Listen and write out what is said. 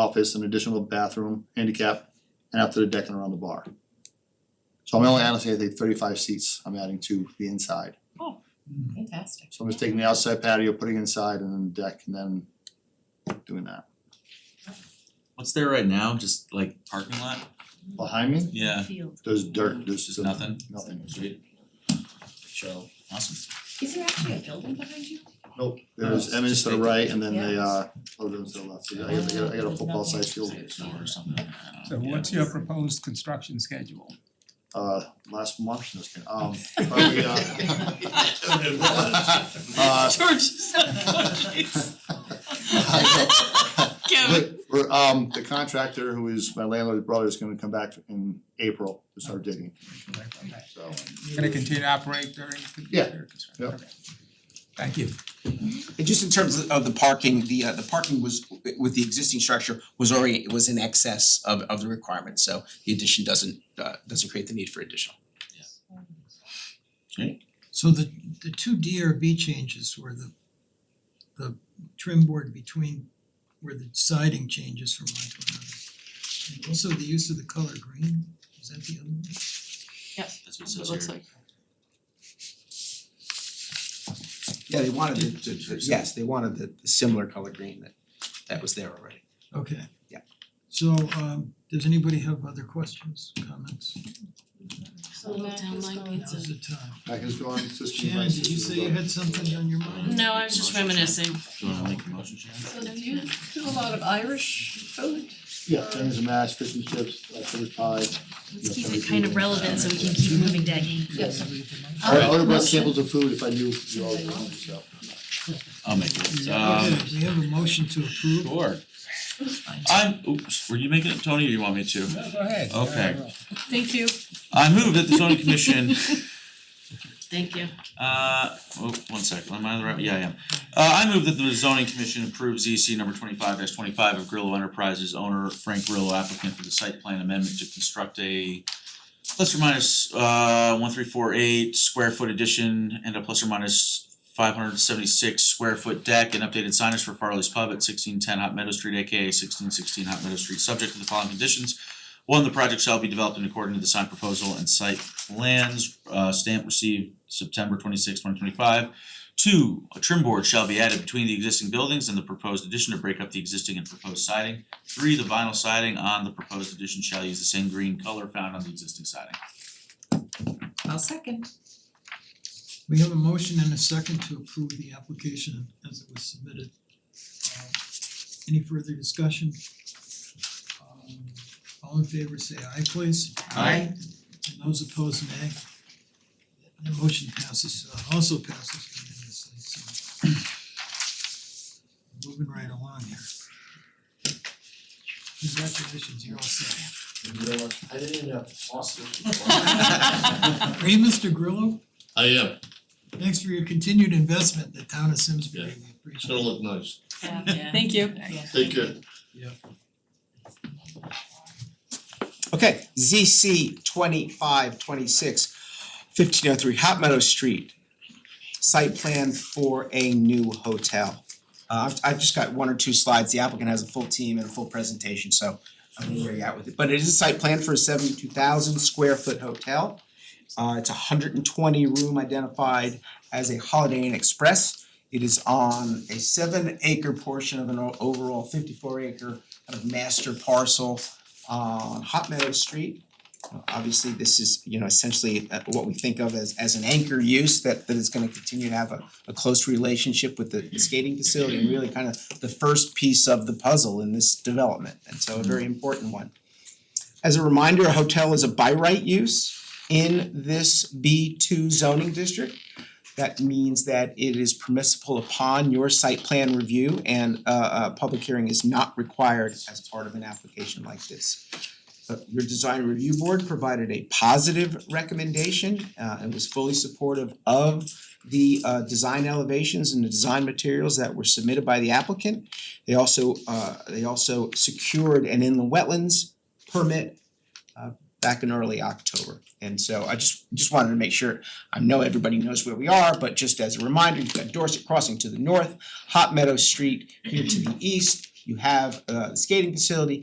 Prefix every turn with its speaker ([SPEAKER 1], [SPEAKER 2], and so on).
[SPEAKER 1] office, an additional bathroom, handicap, and out to the deck and around the bar. So I'm only honestly, I think thirty-five seats I'm adding to the inside.
[SPEAKER 2] Fantastic.
[SPEAKER 1] So I'm just taking the outside patio, putting it inside and then the deck and then doing that.
[SPEAKER 3] What's there right now, just like parking lot?
[SPEAKER 1] Behind me,
[SPEAKER 3] Yeah,
[SPEAKER 2] Field.
[SPEAKER 1] there's dirt, there's just a-
[SPEAKER 3] Nothing?
[SPEAKER 1] Nothing.
[SPEAKER 3] Sweet. So, awesome.
[SPEAKER 2] Is there actually a building behind you?
[SPEAKER 1] Nope, there's
[SPEAKER 3] No,
[SPEAKER 1] Emmons
[SPEAKER 3] just
[SPEAKER 1] to the
[SPEAKER 3] vacant.
[SPEAKER 1] right and then they
[SPEAKER 2] Yeah.
[SPEAKER 1] uh, other ones to the left. I got I got I got a football sized field.
[SPEAKER 3] Say it's door or something, I don't
[SPEAKER 4] So
[SPEAKER 3] know.
[SPEAKER 4] what's your proposed construction schedule?
[SPEAKER 1] Uh last month, no, just kidding. um probably uh uh But we're um the contractor who is my landlord's brother is gonna come back in April to start digging, so.
[SPEAKER 4] Gonna continue to operate during the
[SPEAKER 1] Yeah.
[SPEAKER 4] during construction?
[SPEAKER 1] Yep.
[SPEAKER 4] Okay. Thank you.
[SPEAKER 5] And just in terms of- of the parking, the uh the parking was with the existing structure was already was in excess of of the requirement, so the addition doesn't uh doesn't create the need for additional.
[SPEAKER 6] So the the two DRB changes were the the trim board between where the siding changes from one to another. And also the use of the color green, is that the other one?
[SPEAKER 3] That's what it says here.
[SPEAKER 5] Yeah, they wanted the yes, they wanted the the similar color green that that was there already.
[SPEAKER 6] Okay.
[SPEAKER 5] Yeah.
[SPEAKER 6] So um does anybody have other questions, comments?
[SPEAKER 2] So Mac is going
[SPEAKER 6] Now's the time.
[SPEAKER 1] Back is going, system
[SPEAKER 6] Sharon, did you say you had something on your mind?
[SPEAKER 7] No, I was just reminiscing.
[SPEAKER 3] Do you wanna make a motion, Sharon?
[SPEAKER 2] So do you do a lot of Irish food?
[SPEAKER 1] Yeah, tenders and mash, fish and chips, leftovers pie.
[SPEAKER 7] Let's keep it kind of relevant so we can keep moving, Daggy.
[SPEAKER 2] Yes.
[SPEAKER 1] I I would have brought
[SPEAKER 2] Motion.
[SPEAKER 1] samples of food if I knew you all were hungry, so.
[SPEAKER 3] I'll make it,
[SPEAKER 4] Uh,
[SPEAKER 3] um,
[SPEAKER 6] Okay, we have a motion to approve.
[SPEAKER 3] sure. I'm, oops, were you making it, Tony, or you want me to?
[SPEAKER 4] No, go ahead.
[SPEAKER 3] Okay.
[SPEAKER 7] Thank you.
[SPEAKER 3] I move that the zoning commission
[SPEAKER 7] Thank you.
[SPEAKER 3] Uh, oh, one second, am I on the right, yeah, I am. Uh, I move that the zoning commission approves EC number twenty-five twenty-five of Grillo Enterprises owner Frank Grillo applicant for the site plan amendment to construct a plus or minus uh one three four eight square foot addition and a plus or minus five hundred seventy-six square foot deck and updated signage for Farley's Pub at sixteen ten Hot Meadow Street, AKA sixteen sixteen Hot Meadow Street, subject to the following conditions. One, the project shall be developed in accordance with the sign proposal and site plans, uh, stamp received September 26, 2025. Two, a trim board shall be added between the existing buildings and the proposed addition to break up the existing and proposed siding. Three, the vinyl siding on the proposed addition shall use the same green color found on the existing siding.
[SPEAKER 2] I'll second.
[SPEAKER 6] We have a motion and a second to approve the application as it was submitted. Uh, Any further discussion? Um, All in favor say aye please.
[SPEAKER 3] Aye.
[SPEAKER 6] And those opposed nay. The motion passes, uh, also passes unanimously, so. Moving right along here. Congratulations, you're all set.
[SPEAKER 8] I didn't even have to toss this
[SPEAKER 6] Are you Mr. Grillo?
[SPEAKER 8] I am,
[SPEAKER 6] Thanks for your continued investment in the town of Simsbury, we
[SPEAKER 8] it's
[SPEAKER 6] appreciate it.
[SPEAKER 8] gonna look nice,
[SPEAKER 7] Thank you.
[SPEAKER 8] take care.
[SPEAKER 5] Okay, ZC twenty-five twenty-six, fifteen oh three Hot Meadow Street. Site plan for a new hotel. Uh, I've I've just got one or two slides, the applicant has a full team and a full presentation, so I don't know where you're at with it, but it is a site plan for a seventy-two thousand square foot hotel. Uh, it's hundred and twenty room identified as a Holiday Inn Express. It is on a seven acre portion of an o- overall fifty-four acre kind of master parcel on Hot Meadow Street. Uh, Obviously, this is, you know, essentially uh, what we think of as as an anchor use that that is gonna continue to have a a close relationship with the skating facility and really kind of the first piece of the puzzle in this development, and so a very important one. As a reminder, a hotel is a by right use in this B two zoning district. That means that it is permissible upon your site plan review and uh a public hearing is not required as part of an application like this. Uh, your design review board provided a positive recommendation uh, and was fully supportive of the uh, design elevations and the design materials that were submitted by the applicant. They also uh, they also secured an inland wetlands permit uh, back in early October. And so I just just wanted to make sure, I know everybody knows where we are, but just as a reminder, you've got Dorset Crossing to the north, Hot Meadow Street here to the east, You have a skating facility,